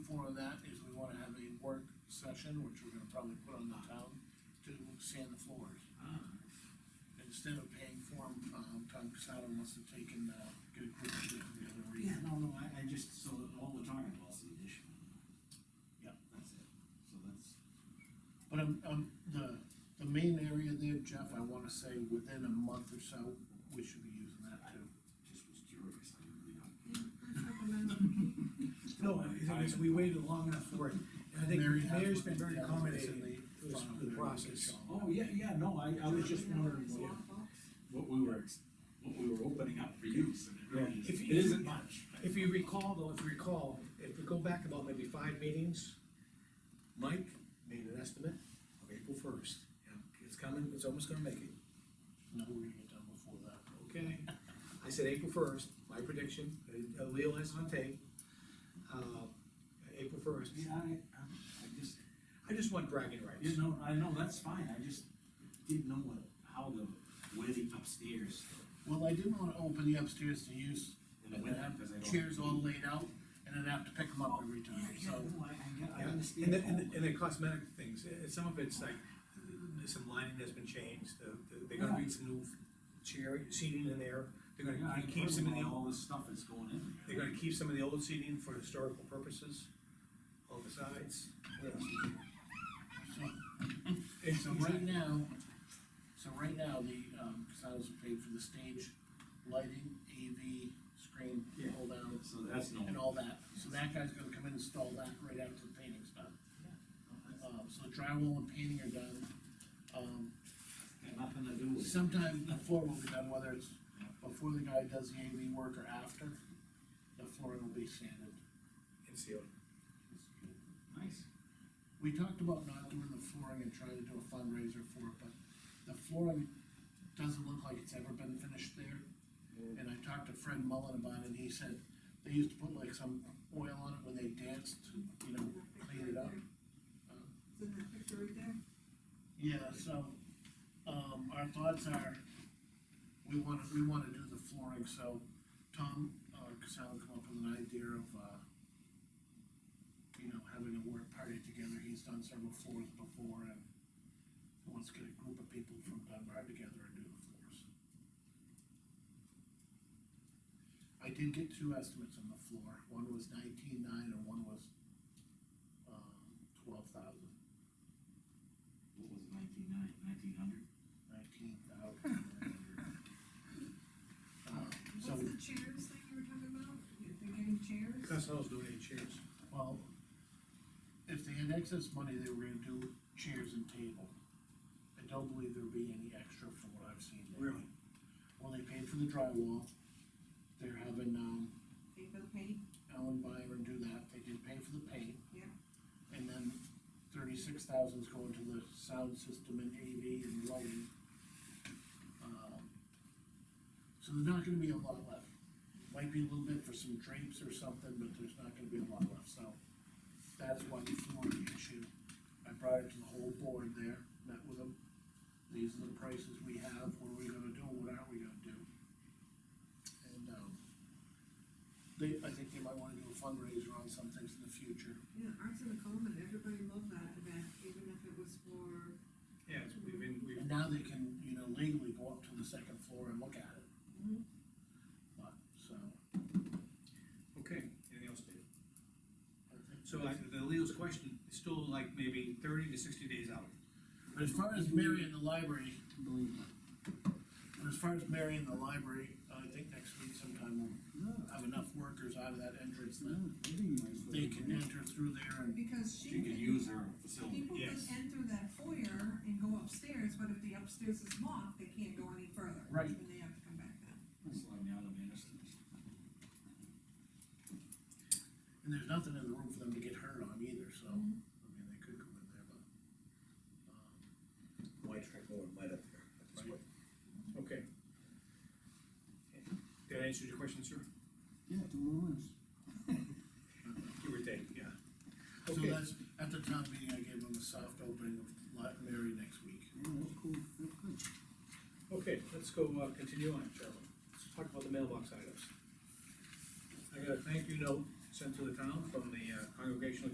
wanna have a work session, which we're gonna probably put on the town, to sand the floors. Um, Instead of paying for them, um, Tom Casado wants to take and, uh, get a group to do the other Yeah, reason. no, no, I, I just, so all we're talking about is the addition. Yep. That's it, so that's, But um, um, the, the main area there, Jeff, I wanna say within a month or so, we should be using that too. just was curious, I didn't really know. No, the thing is, we waited long enough for it, and I think Mary has Mayor's looked been very at the evidence in accommodating the to this- file the there. process. Oh, yeah, yeah, no, I, I was just wondering what, what we were, ex- what we were opening up for use, and it really, is- If it you- isn't much. If you recall, though, if you recall, if we go back about maybe five meetings, Mike made an estimate of April first. It's coming, it's almost gonna make it, No, we're gonna get done before that. okay? I said April first, my prediction, uh, Leo has it on tape, uh, April first. Yeah, I, I- I just, I just want bragging rights. you know, I know, that's fine, I just didn't know what, how the, where the upstairs, Well, I didn't wanna open the upstairs to use, in the and winter, have because I don't. chairs all laid out, and then have to pick them up every time, Yeah, so. yeah, no, I, I get- I Yeah, understand. And the, and the, all and the cosmetic things, eh, some of it's like, eh, some lining has been changed, the- the- they're gonna need some new chair, seating in there. They're Yeah, gonna I keep some of the, heard about old- All this stuff that's going in. they're gonna keep some of the old seating for historical purposes, on the sides. What else is there? so- It's So a right brand- now, so right now, the, um, Casados are paid for the stage, lighting, AV, screen, Yeah. hold down, So that's no. and all that. So that guy's gonna come in and install that right after the painting's done. Um, so the drywall and painting are done. Um, Got nothing to do with. it. sometime the floor will be done, whether it's before the guy does the AV work or after, the flooring will be sanded. and sealed. Nice. We talked about not doing the flooring and trying to do a fundraiser for it, but the flooring doesn't look like it's ever been finished there. And I talked to Fred Mullen about it, and he said, they used to put like some oil on it when they danced, to, you know, clean it up. Is in that picture right there? Yeah, so, um, our thoughts are, we wanna, we wanna do the flooring, so Tom, uh, Casal come up with an idea of, uh, you know, having a work party together, he's done several floors before, and he wants to get a group of people from Dunbar together and do the floors. I did get two estimates on the floor, one was nineteen-nine and one was, um, twelve thousand. What was it, nineteen nine, nineteen hundred? nineteen thousand. Um, So, What's the chairs thing you were talking about? If They're getting chairs? Cosmetic's donating chairs. well, if they had excess money, they were gonna do chairs and table. I don't believe there'd be any extra from what I've seen. there. Really? Well, they paid for the drywall, they're having, um, They bill paint? Alan Byron do that, they did pay for the paint. Yeah. And then thirty-six thousand's going to the sound system and AV and lighting. Um, So there's not gonna be a lot left, might be a little bit for some drapes or something, but there's not gonna be a lot left, so. That's why the flooring issue, I brought it to the whole board there, met with them, these are the prices we have, what are we gonna do, what aren't we gonna do? And, um, they, I think they might wanna do a fundraiser on some things in the future. Yeah, arts in the common, everybody loved that event, even if it was for, Yeah, we've been, we've, And now they can, you know, legally go up to the second floor and look at it. Mhm. But, so, okay, anything else, Dave? I think. So like, the Leo's question, is still like maybe thirty to sixty days out. But As far as Mary in the library, Believe it. as far as Mary in the library, I think next week sometime we'll No, have enough workers out of that entrance no, that living room's what they we can need. enter through there and, because she. She could use her facility. People can Yes. enter that foyer and go upstairs, but if the upstairs is locked, they can't go any further. Right. And they have to come back then. That's like now the minister. and there's nothing in the room for them to get hurt on either, so, I mean, they could go in there, but. um, Might drink more, might up there. at this point. Okay. Did I answer your question, sir? Yeah, two more months. Give or take, yeah. So Okay, that's, at the town meeting, I gave them a soft opening of Li- Mary next week. Yeah, that's cool, that's good. okay, let's go, uh, continue on, Charlie. Let's talk about the mailbox items. I got a thank you note sent to the town from the uh, Congregational